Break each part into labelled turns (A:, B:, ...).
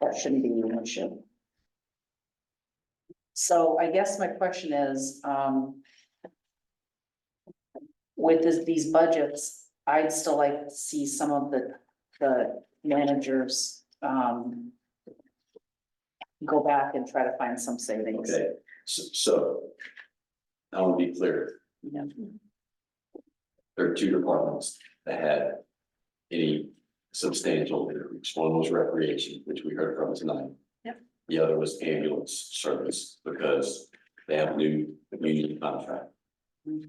A: That shouldn't be an issue. So I guess my question is, um. With this, these budgets, I'd still like to see some of the, the managers, um. Go back and try to find some savings.
B: Okay, so, so. I want to be clear,
A: Yeah.
B: there are two departments that had any substantial increase. One was recreation, which we heard from tonight.
A: Yep.
B: The other was ambulance service because they have new union contract.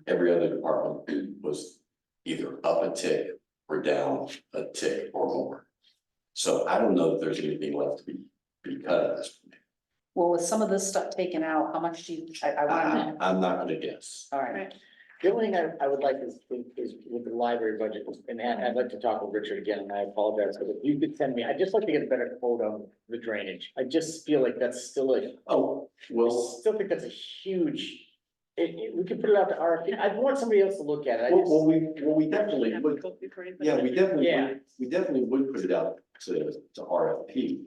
B: Every other department was either up a tick or down a tick or more. So I don't know if there's anything left to be, be cut at this point.
A: Well, with some of this stuff taken out, how much do you, I, I
B: I-
A: wanna,
B: I'm not gonna guess.
A: all right,
C: The only thing I, I would like is, is with the library budget, and I-
B: Mm.
C: I'd like to talk with Richard again, and I apologize, but if you could send me, I'd just like to get a better quote on the drainage. I just feel like that's still a,
B: Oh,
C: I
B: well,
C: still think that's a huge, it, it- we could put it out to RFP. I'd want somebody else to look at it. I
B: well, well,
C: just,
B: we, well, we definitely would, yeah, we definitely,
C: Yeah.
B: would- we definitely would put it out to, to RFP.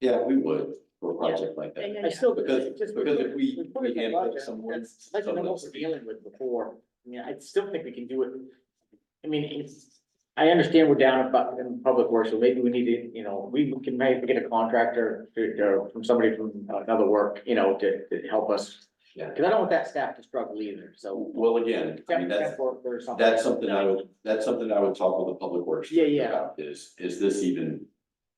B: Yeah, we would for a project like that,
C: I still,
B: because,
C: it just.
B: because if we,
C: put
B: we
C: it in the
B: hand pick
C: budget,
B: someone.
C: That's like the
B: someone
C: one
B: else
C: we're
B: to be-
C: dealing with before. I mean, I still think we can do it. I mean, it's, I understand we're down in bu- in public works, so maybe we need to, you know, we can maybe get a contractor to, or from somebody from another work, you know, to, to help us.
B: Yeah.
C: Cause I don't want that staff to struggle either, so.
B: Well, again, I mean, that's,
C: temp work or something.
B: that's something I would, that's something I would talk with the public works.
C: Yeah, yeah.
B: about Is, is this even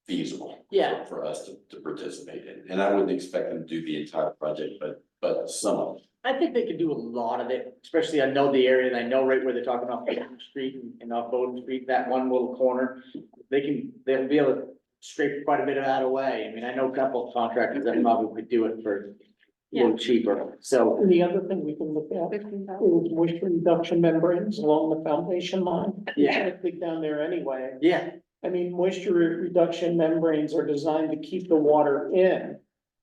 B: feasible?
C: Yeah.
B: For us to, to participate in, and I wouldn't expect them to do the entire project, but, but some of it.
C: I think they could do a lot of it, especially I know the area and I know right where they're talking off Bowden Street and- and off Bowden Street, that one little corner. They can, they'll be able to scrape quite a bit of that away. I mean, I know a couple of contractors that probably could do it for a little cheaper, so.
D: And the other thing we can look at is waste reduction membranes along the foundation line.
C: Yeah.
D: It's Big down there anyway.
C: Yeah,
D: I mean, moisture re- reduction membranes are designed to keep the water in.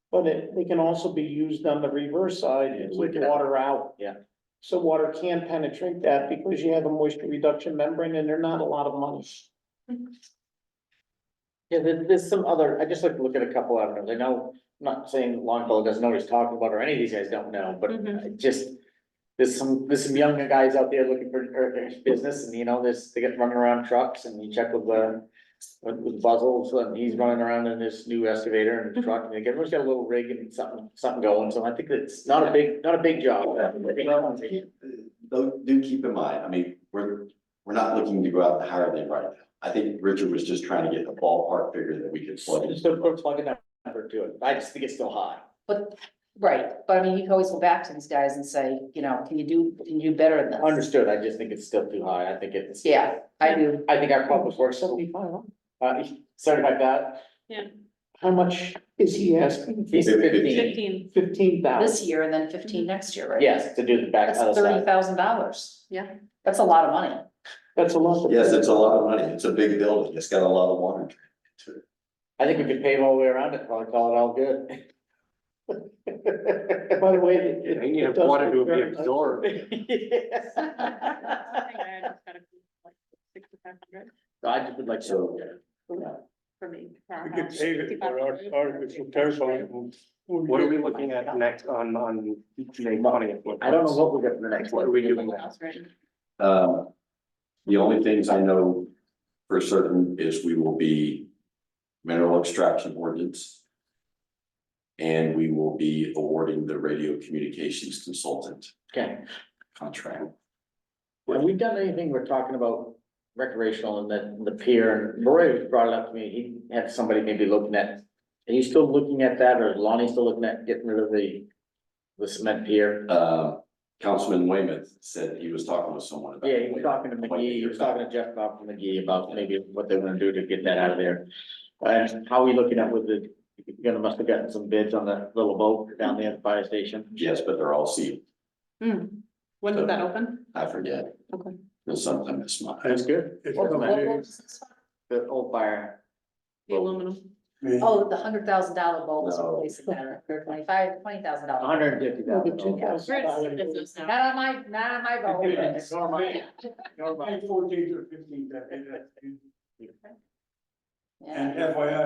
D: But it, they can also be used on the reverse side
C: Yeah,
D: to
C: look
D: keep
C: it up.
D: water out.
C: Yeah.
D: So water can penetrate that because you have a moisture reduction membrane and they're not a lot of money.
C: yeah, there, there's some other, I just like to look at a couple of them. I know, I'm not saying Longfellow doesn't know what he's talking about or any of these guys don't know, but
A: Mhm.
E: Mm-hmm.
C: I just. There's some, there's some young guys out there looking for, er, business and you know, there's, they get running around trucks and you check with, uh. With, with Buzzles and he's
A: Mm-hmm.
C: running around in this new excavator and truck and they get, everyone's got a little rig and something, something going, so I think it's not a big, not a big job.
B: Well, keep- uh, Though, do keep in mind, I mean, we're, we're not looking to go out and hire them right now. I think Richard was just trying to get a ballpark figure that we could plug in.
C: Just don't put a plug in that number to it, I just think it's still high.
A: but, right, but I mean, you can always go back to these guys and say, you know, can you do, can you do better than this?
C: Understood, I just think it's still too high, I think it's.
A: Yeah, I do,
C: I think our public works, uh,
D: Seventy-five,
C: sorry about that,
D: how much is he asking?
C: he's
B: Fifteen.
C: fifteen,
E: Fifteen,
D: Fifteen thousand.
A: this year and then fifteen next year, right?
C: yes, to do the back
A: That's
C: other
A: thirty
C: side.
A: thousand dollars.
E: Yeah.
A: That's a lot of money.
D: That's a lot. of-
B: Yes, it's a lot of money. It's a big building. It's got a lot of water. to it.
C: I think we could pave all the way around it, probably call it all good.
D: By the way, it- it.
F: They need
D: it
F: a
D: does
F: water
D: look
F: to be
D: very nice.
F: absorbed.
E: I think I just got a, like, sixty-five hundred
C: So I just would like
B: So-
C: to,
E: for me.
G: We could save it for our, our, it's a terrifying.
F: What are we looking at next on, on May twentieth?
C: I don't know what we'll get for the next
F: What are
C: one.
F: we doing?
B: Um, the only things I know for certain is we will be mineral extraction ordinance. And we will be awarding the radio communications consultant
C: Okay,
B: contract.
C: have we done anything, we're talking about recreational and then the pier, and Roy brought it up to me, he had somebody maybe looking at. Are you still looking at that, or is Lonnie still looking at getting rid of the, the cement pier?
B: uh, Councilman Weymouth said he was talking with someone about.
C: Yeah, he was talking to McGee, he was talking to Jeff Bob from McGee about maybe what they wanna do to get that out of there. And how are we looking at with the, you gonna must have gotten some bids on that little boat down there at the fire station?
B: Yes, but they're all sealed.
E: Hmm. When did that open?
B: I forget.
E: Okay.
B: It was sometime this month.
G: That's
C: good.
G: It's
A: What- what- what
G: amazing.
A: was this one?
C: The old fire,
E: The aluminum.
A: Oh, the hundred thousand dollar bulb is
B: No.
A: replacing that, or twenty-five, twenty thousand dollars.
C: hundred and fifty
D: Well, the
C: thousand.
A: Not on my, not on my
B: Yes.
A: bulb.
G: Fourteen or fifteen, that- that- that-
A: Yeah.
G: and FYI,